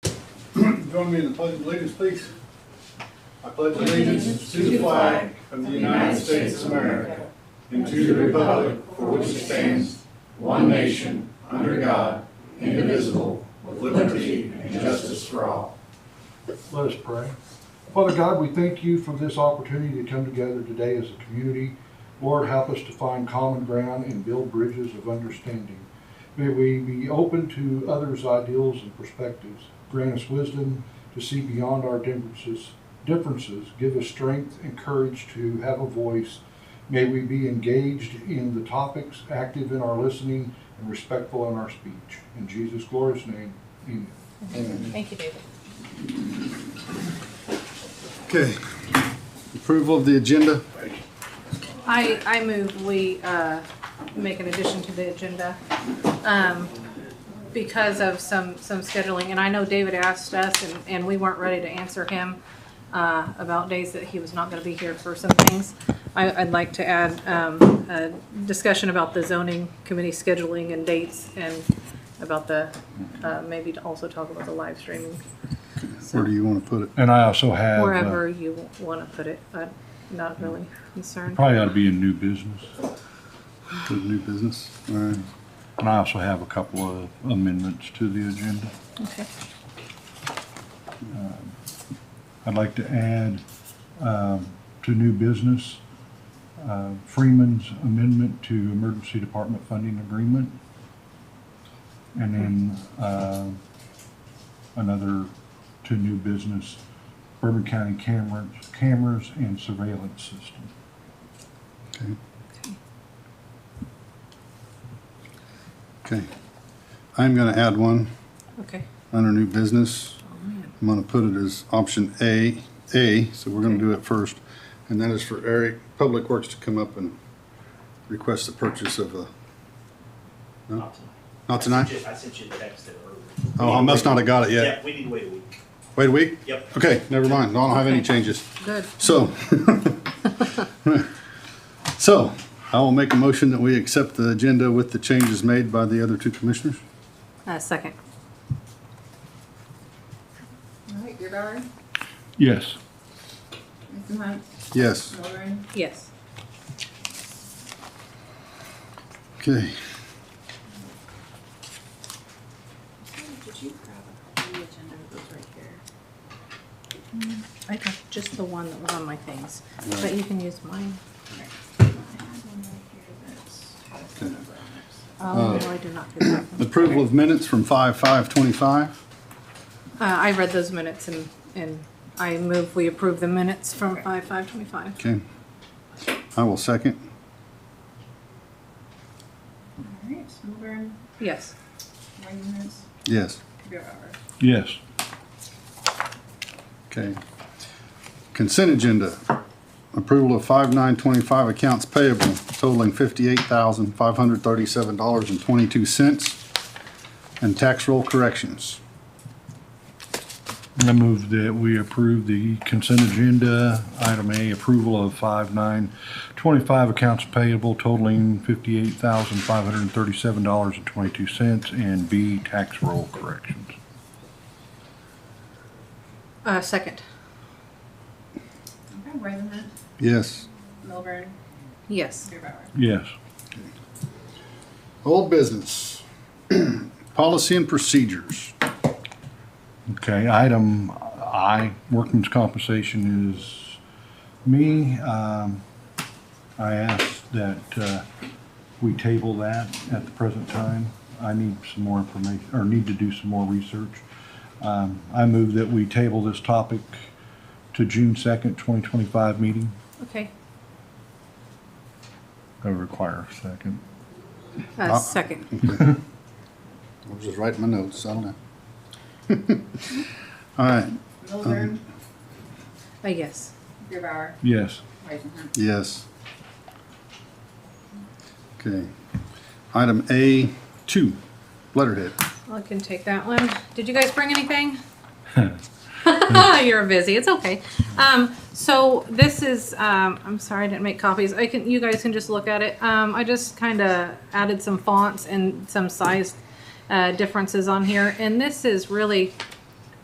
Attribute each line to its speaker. Speaker 1: Join me in the pledge of allegiance, please. I pledge allegiance to the flag of the United States of America and to the republic for which it stands, one nation, under God, indivisible, with liberty and justice for all.
Speaker 2: Let us pray. Father God, we thank you for this opportunity to come together today as a community. Lord, help us to find common ground and build bridges of understanding. May we be open to others' ideals and perspectives. Grant us wisdom to see beyond our differences. Differences give us strength and courage to have a voice. May we be engaged in the topics, active in our listening, and respectful in our speech. In Jesus' glorious name, amen.
Speaker 3: Thank you, David.
Speaker 1: Okay. Approval of the agenda?
Speaker 3: I, I move we uh, make an addition to the agenda um, because of some, some scheduling. And I know David asked us, and, and we weren't ready to answer him uh, about days that he was not going to be here for some things. I, I'd like to add um, a discussion about the zoning committee scheduling and dates and about the, uh, maybe to also talk about the live streaming.
Speaker 1: Where do you want to put it?
Speaker 2: And I also have. uh,
Speaker 3: Wherever you want to put it, I'm not really concerned.
Speaker 2: Probably ought to be in new business.
Speaker 1: Put new business? All right.
Speaker 2: And I also have a couple of amendments to the agenda.
Speaker 3: Okay.
Speaker 2: I'd like to add um, to new business uh, Freeman's amendment to emergency department funding agreement. And then uh, another to new business Bourbon County cameras, cameras and surveillance system.
Speaker 1: Okay. Okay. I'm going to add one
Speaker 3: Okay.
Speaker 1: under new business.
Speaker 3: Oh, man.
Speaker 1: I'm gonna put it as option A, A, so we're gonna do it first. And that is for Eric, Public Works to come up and request the purchase of a,
Speaker 4: Not
Speaker 1: not tonight?
Speaker 4: Just- I sent you the text there earlier.
Speaker 1: Oh, I must not have got it
Speaker 4: Yeah.
Speaker 1: yet.
Speaker 4: we need to wait a week.
Speaker 1: Wait a week?
Speaker 4: Yep.
Speaker 1: Okay, never mind. I don't have any changes.
Speaker 3: Good.
Speaker 1: So, so I will make a motion that we accept the agenda with the changes made by the other two commissioners.
Speaker 3: Uh, second.
Speaker 5: All right, Gerard,
Speaker 2: Yes.
Speaker 5: Mr. Hunt,
Speaker 1: Yes.
Speaker 5: Lauren,
Speaker 3: Yes.
Speaker 1: Okay.
Speaker 5: did you grab the agenda that was right here?
Speaker 3: I got just the one that was on my things, but you can use mine.
Speaker 5: I had one right here that's.
Speaker 3: Oh, no, I do not get that one.
Speaker 1: Approval of minutes from five, five, twenty-five.
Speaker 3: Uh, I read those minutes and, and I move we approve the minutes from five, five twenty-five.
Speaker 1: Okay. I will second.
Speaker 5: All right, Lauren,
Speaker 3: Yes.
Speaker 5: Wagner's,
Speaker 1: Yes.
Speaker 5: Gerard.
Speaker 2: Yes.
Speaker 1: Okay. Consent agenda. Approval of five nine twenty-five accounts payable totaling fifty-eight thousand, five hundred thirty-seven dollars and twenty-two cents. And tax roll corrections.
Speaker 2: I move that we approve the consent agenda, item A, approval of five nine twenty-five accounts payable totaling fifty-eight thousand five hundred and thirty-seven dollars and twenty-two cents, and B, tax roll corrections.
Speaker 3: Uh, second.
Speaker 5: Okay, Wagner,
Speaker 1: Yes.
Speaker 5: Milburn,
Speaker 3: Yes.
Speaker 5: Gerard.
Speaker 2: Yes.
Speaker 1: Old business. Policy and procedures.
Speaker 2: Okay, item I, workman's compensation is me. Um, I ask that uh, we table that at the present time. I need some more information, or need to do some more research. Um, I move that we table this topic to June 2nd, 2025 meeting.
Speaker 3: Okay.
Speaker 2: I require a second.
Speaker 3: Uh, second.
Speaker 1: I'm just writing my notes, I don't know. All right,
Speaker 5: Milburn,
Speaker 3: Uh, yes.
Speaker 5: Gerard,
Speaker 2: Yes.
Speaker 5: Wagner.
Speaker 1: yes. Okay. Item A two, letterhead.
Speaker 3: I can take that one. Did you guys bring anything? You're busy. It's okay. Um, so this is, um, I'm sorry, I didn't make copies. I can, you guys can just look at it. Um, I just kind of added some fonts and some size uh, differences on here. And this is really